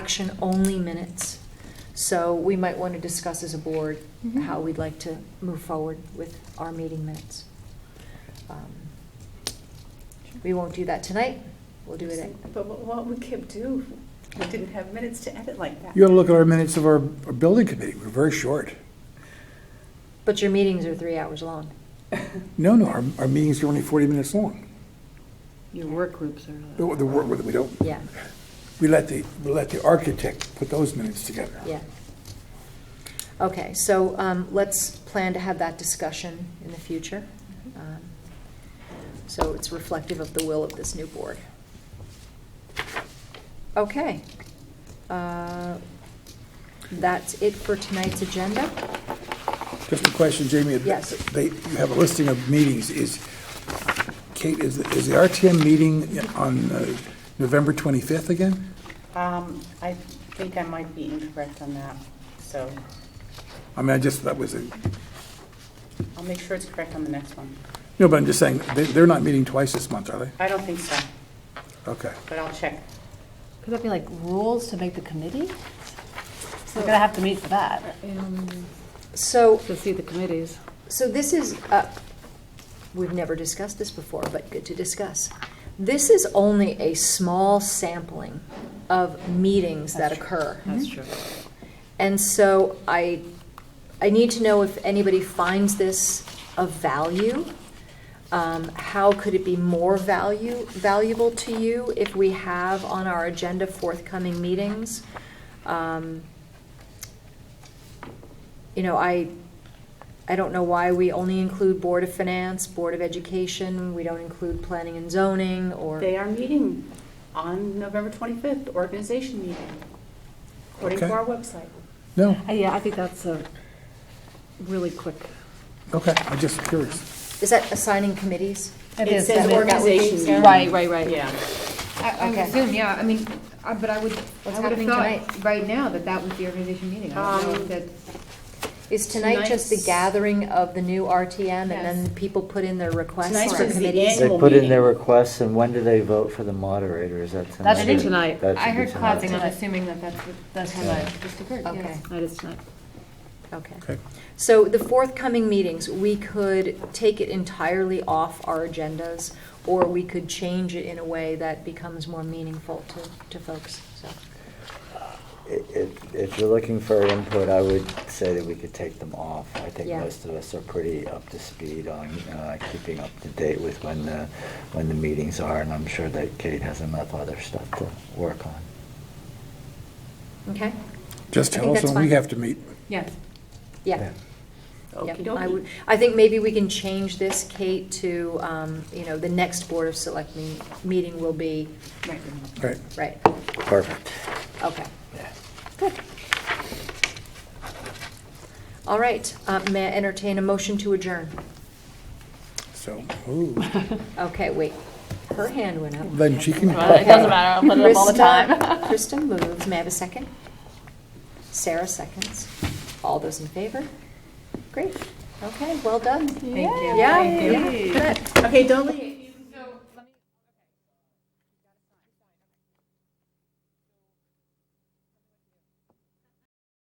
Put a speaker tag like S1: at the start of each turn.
S1: action-only minutes. So we might want to discuss as a board
S2: Mm-hmm.
S3: Mhm.
S1: how we'd like to move forward with our meeting minutes. Um, We won't do that tonight, we'll do it at
S4: But what- what would Kip do? if We didn't have minutes to edit like that.
S5: You gotta look at our minutes of our, our building committee, we're very short.
S1: But your meetings are three hours long.
S5: No, no, our, our meetings are only forty minutes long.
S3: Your work groups are.
S5: The, the work, with it, we don't,
S1: Yeah,
S5: we let the, we let the architect put those minutes together.
S1: yeah. Okay, so um, let's plan to have that discussion in the future.
S3: Mm-hmm.
S1: Um, So it's reflective of the will of this new board. Okay. Uh, That's it for tonight's agenda.
S5: Just a question, Jamie.
S1: Yes.
S5: They, you have a listing of meetings, is, Kate, is, the- is the RTM meeting on uh, November twenty-fifth again?
S6: Um, I think I might be incorrect on that, so
S5: I mean, I just, that was a,
S6: I'll make sure it's correct on the next one.
S5: no, but I'm just saying, they, they're not meeting twice this month, are they?
S6: I don't think so,
S5: Okay.
S6: but I'll check.
S3: Could that be like rules to make the committee? So we're gonna have to meet for that,
S1: So
S3: to see the committees.
S1: So this is, uh, we've never discussed this before, but good to discuss. This is only a small sampling of meetings that occur.
S3: That's true.
S1: And so I, I need to know if anybody finds this of value. Um, How could it be more value, valuable to you if we have on our agenda forthcoming meetings? Um, You know, I, I don't know why we only include Board of Finance, Board of Education, we don't include Planning and Zoning, or.
S6: They are meeting on November 25th, organization meeting, according to
S5: Okay.
S6: our website.
S5: No,
S3: Uh, Yeah, I think that's a really quick.
S5: okay, I'm just curious.
S1: Is that assigning committees?
S6: It says organization meeting.
S3: Right, right, right.
S6: Yeah.
S2: I I would
S1: Okay.
S2: assume, yeah, I mean, uh, but I would,
S1: What's
S2: I would have
S1: happening tonight?
S2: thought right now that that was the organization meeting. I don't know
S6: Um,
S2: if that,
S1: Is tonight just the
S6: Tonight's-
S1: gathering of the new RTM and then
S2: Yes.
S1: people put in their requests
S6: Tonight's
S1: for
S6: is the
S1: committees?
S7: They
S6: annual
S7: put in their
S6: meeting.
S7: requests, and when do they vote for the moderator? Is that tonight?
S3: That should be tonight.
S7: That should
S2: I
S7: be
S2: heard
S7: tonight.
S2: clapping, I'm assuming that that's, what- that's how that just occurred,
S1: Okay.
S2: yes.
S3: That is tonight.
S1: Okay.
S5: Okay.
S1: So the forthcoming meetings, we could take it entirely off our agendas or we could change it in a way that becomes more meaningful to, to folks, so.
S7: I- If, if you're looking for input, I would say that we could take them off. I think
S1: Yeah.
S7: most of us are pretty up to speed on uh, keeping up to date with when the, when the meetings are, and I'm sure that Kate has enough other stuff to work on.
S1: Okay?
S5: Just
S1: I think
S5: tell us
S1: that's
S5: when we
S1: fine.
S5: have to meet.
S2: Yes.
S1: Yeah. Yep, I
S6: Okey-dokey.
S1: would, I think maybe we can change this, Kate, to, um, you know, the next Board of Select me- meeting will be,
S6: Right.
S5: Right.
S1: right,
S7: Perfect.
S1: okay.
S7: Yeah.
S1: Good. All right, uh, may I entertain a motion to adjourn?
S5: So, ooh,
S1: Okay, wait, her hand went up.
S5: then she can.
S3: It doesn't matter, I'll put it up all the time.
S1: Krista- Krista moves, may I have a second? Sarah seconds. All those in favor? Great, okay, well done.
S2: Thank you.
S1: Yeah,
S2: Thank you.
S1: yeah, good.
S6: Okay, don't leave.